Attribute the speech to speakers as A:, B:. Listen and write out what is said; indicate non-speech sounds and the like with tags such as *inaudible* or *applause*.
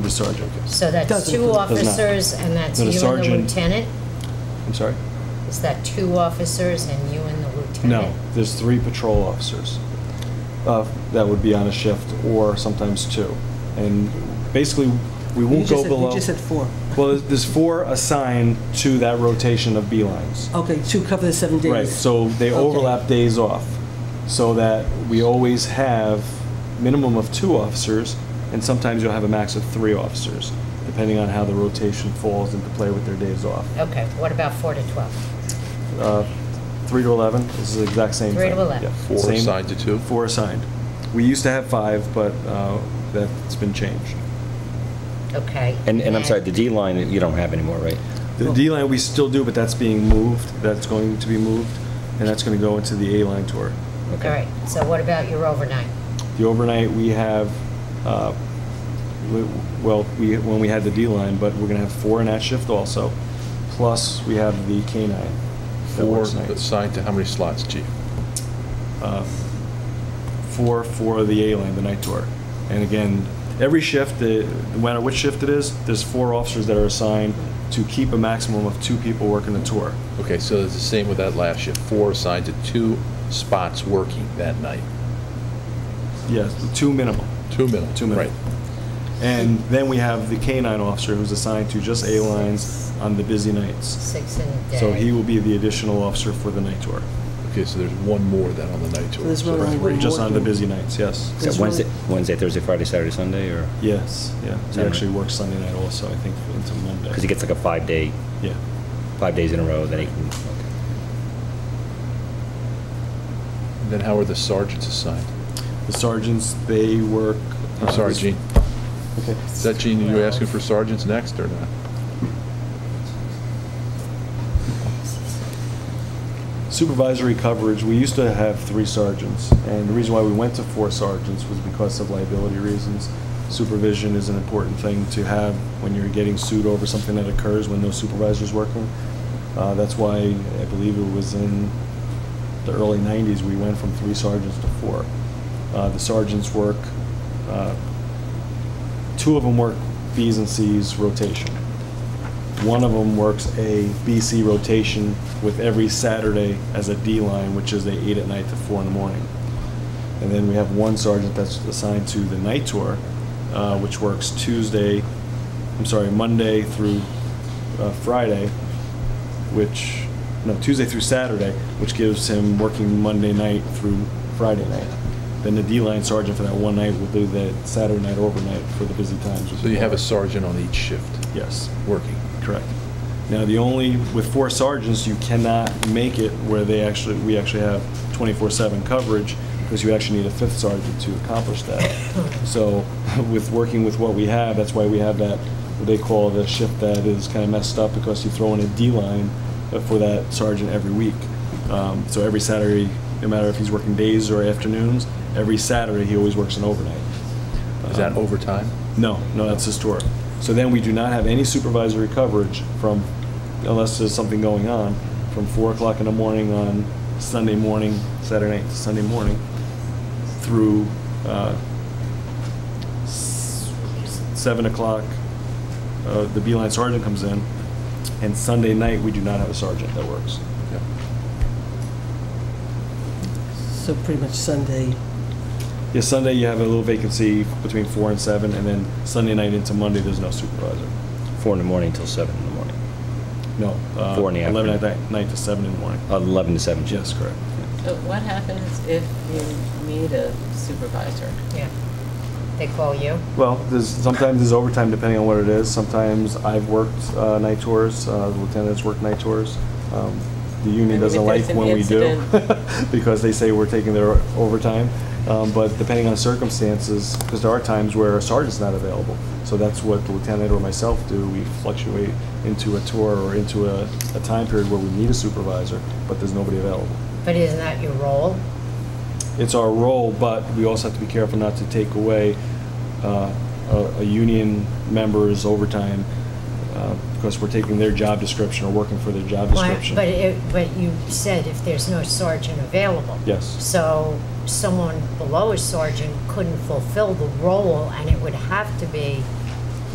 A: sergeant gets.
B: So that's
C: Doesn't-
B: two
C: does
A: not.
B: officers, and that's
A: But
B: you
A: a
B: and the
A: sergeant-
B: lieutenant?
A: I'm sorry?
B: Is that two officers and you and the lieutenant?
A: No, there's three patrol officers uh, that would be on a shift, or sometimes two. And basically, we
C: You
A: won't
C: just
A: go
C: said-
A: below...
C: You just said four.
A: Well, there's- there's four assigned to that rotation of B lines.
C: Okay, to cover the seven days.
A: Right, so they
C: Okay.
A: overlap days off, so that we always have minimum of two officers, and sometimes you'll have a max of three officers, depending on how the rotation falls into play with their days off.
B: Okay, what about four to 12?
A: Uh, Three to 11 is the exact same thing.
B: Three to 11.
A: Yeah,
D: Four
A: same-
D: assigned to two?
A: Four assigned. We used to have five, but uh, that's been changed.
B: Okay.
E: And, and I'm
B: then-
E: sorry, the D line, you don't have anymore, right?
A: The D line, we still do, but that's being moved, that's going to be moved, and that's going to go into the A line tour.
B: All right, so what about your overnight?
A: The overnight, we have, uh, we- well, we, when we had the D-line, but we're gonna have four in that shift also, plus we have the K-9. that
D: Four
A: works nights.
D: assigned to how many slots, chief?
A: Uh, Four for the A-line, the night tour. And again, every shift, uh, no matter which shift it is, there's four officers that are assigned to keep a maximum of two people working the tour.
D: Okay, so it's the same with that last shift, four assigned to two spots working that night,
A: Yes, two minimum.
D: two minimum.
A: Two minimum.
D: Right.
A: And then we have the K-9 officer who's assigned to just A-lines on the busy nights.
B: Six in a day?
A: So he will be the additional officer for the night tour,
D: Okay, so there's one more then on the night tour.
C: there's one
D: So
C: more.
D: three.
A: just on the busy nights, yes.
E: Is that
C: It's
E: Wednesday,
C: really-
E: Wednesday, Thursday, Friday, Saturday, Sunday, or,
A: Yes, yeah. He
E: Saturday.
A: actually works Sunday night also, I think, into Monday.
E: because he gets like a five-day,
A: Yeah.
E: five days in a row, then he can, okay.
D: And Then how are the sergeants assigned?
A: The sergeants, they work. uh,
D: I'm sorry, Gene.
A: Okay.
D: Is that Gene, you were asking for sergeants next or not?
A: Supervisory coverage, we used to have three sergeants, and the reason why we went to four sergeants was because of liability reasons. Supervision is an important thing to have when you're getting sued over something that occurs when no supervisor's working. Uh, That's why, I believe it was in the early 90s, we went from three sergeants to four. Uh, The sergeants work, uh, two of them work Bs and Cs rotation. One of them works a BC rotation with every Saturday as a D line, which is a eight at night to four in the morning. And then we have one sergeant that's assigned to the night tour, uh, which works Tuesday, I'm sorry, Monday through uh, Friday, which, no, Tuesday through Saturday, which gives him working Monday night through Friday night. Then the D line sergeant for that one night will do the Saturday night overnight for the busy times.
D: So you have a sergeant on each shift
A: Yes.
D: working.
A: Correct. Now, the only, with four sergeants, you cannot make it where they actually, we actually have 24/7 coverage, because you actually need a fifth sergeant to accomplish that. So with working with what we have, that's why we have that, what they call the shift that is kind of messed up, because you throw in a D line for that sergeant every week. Um, So every Saturday, no matter if he's working days or afternoons, every Saturday, he always works an overnight.
D: Is that
A: Um,
D: overtime?
A: no, no, that's his tour. So then we do not have any supervisory coverage from, unless there's something going on, from four o'clock in the morning on Sunday morning, Saturday night to Sunday morning, through uh, s- seven o'clock, uh, the B-line sergeant comes in, and Sunday night, we do not have a sergeant that works.
D: Yeah.
C: So pretty much Sunday,
A: Yeah, Sunday, you have a little vacancy between four and seven, and then Sunday night into Monday, there's no supervisor.
E: four in the morning till seven in the morning,
A: No. uh,
E: Four in the
A: Eleven at
E: afternoon.
A: night-
E: Oh.
A: night to seven in the morning.
E: eleven to seven.
A: Yes, correct.
F: But what happens if you need a supervisor?
B: Yeah. They call you?
A: Well, there's, sometimes there's overtime depending on what it is. Sometimes I've worked uh, night tours, uh, the lieutenants work night tours. Um, The
F: I
A: union
F: mean,
A: doesn't
F: if
A: like
F: there's an
A: when we do, *laughs* because they say we're taking their overtime. Um, But depending on circumstances, because there are times where a sergeant's not available. So that's what the lieutenant or myself do. We fluctuate into a tour or into a, a time period where we need a supervisor, but there's nobody available.
B: But isn't that your role?
A: it's our role, but we also have to be careful not to take away uh, a a union member's overtime uh, because we're taking their job description or working for their job
B: Why-
A: description.
B: But it, but you said if there's no sergeant available.
A: Yes.
B: So someone below a sergeant couldn't fulfill the role, and it would have to be